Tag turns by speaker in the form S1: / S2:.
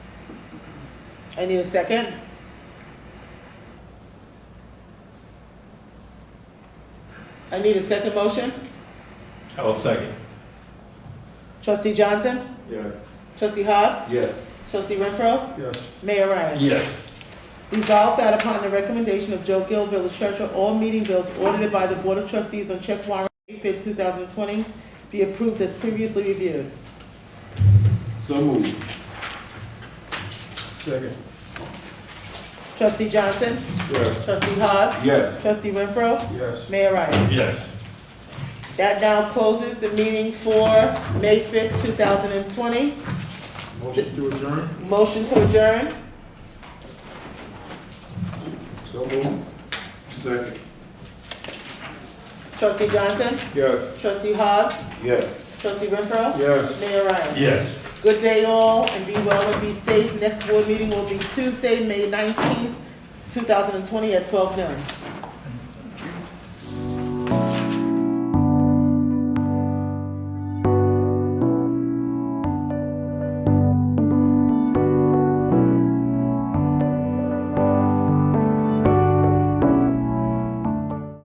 S1: I need a second. I need a second motion.
S2: I'll second.
S1: Trustee Johnson?
S2: Yes.
S1: Trustee Hobbs?
S2: Yes.
S1: Trustee Renfro?
S2: Yes.
S1: Mayor Ryan?
S2: Yes.
S1: Resolved that upon the recommendation of Joe Gill, village treasurer, all meeting bills ordered by the Board of Trustees on check warrant May 5th, 2020 be approved as previously reviewed.
S3: So moved.
S2: Second.
S1: Trustee Johnson?
S2: Yes.
S1: Trustee Hobbs?
S3: Yes.
S1: Trustee Renfro?
S2: Yes.
S1: Mayor Ryan?
S2: Yes.
S1: That now closes the meeting for May 5th, 2020.
S2: Motion to adjourn?
S1: Motion to adjourn.
S2: So moved.
S3: Second.
S1: Trustee Johnson?
S2: Yes.
S1: Trustee Hobbs?
S3: Yes.
S1: Trustee Renfro?
S2: Yes.
S1: Mayor Ryan?
S2: Yes.
S1: Good day all, and be well and be safe. Next board meeting will be Tuesday, May 19th, 2020 at 12 noon.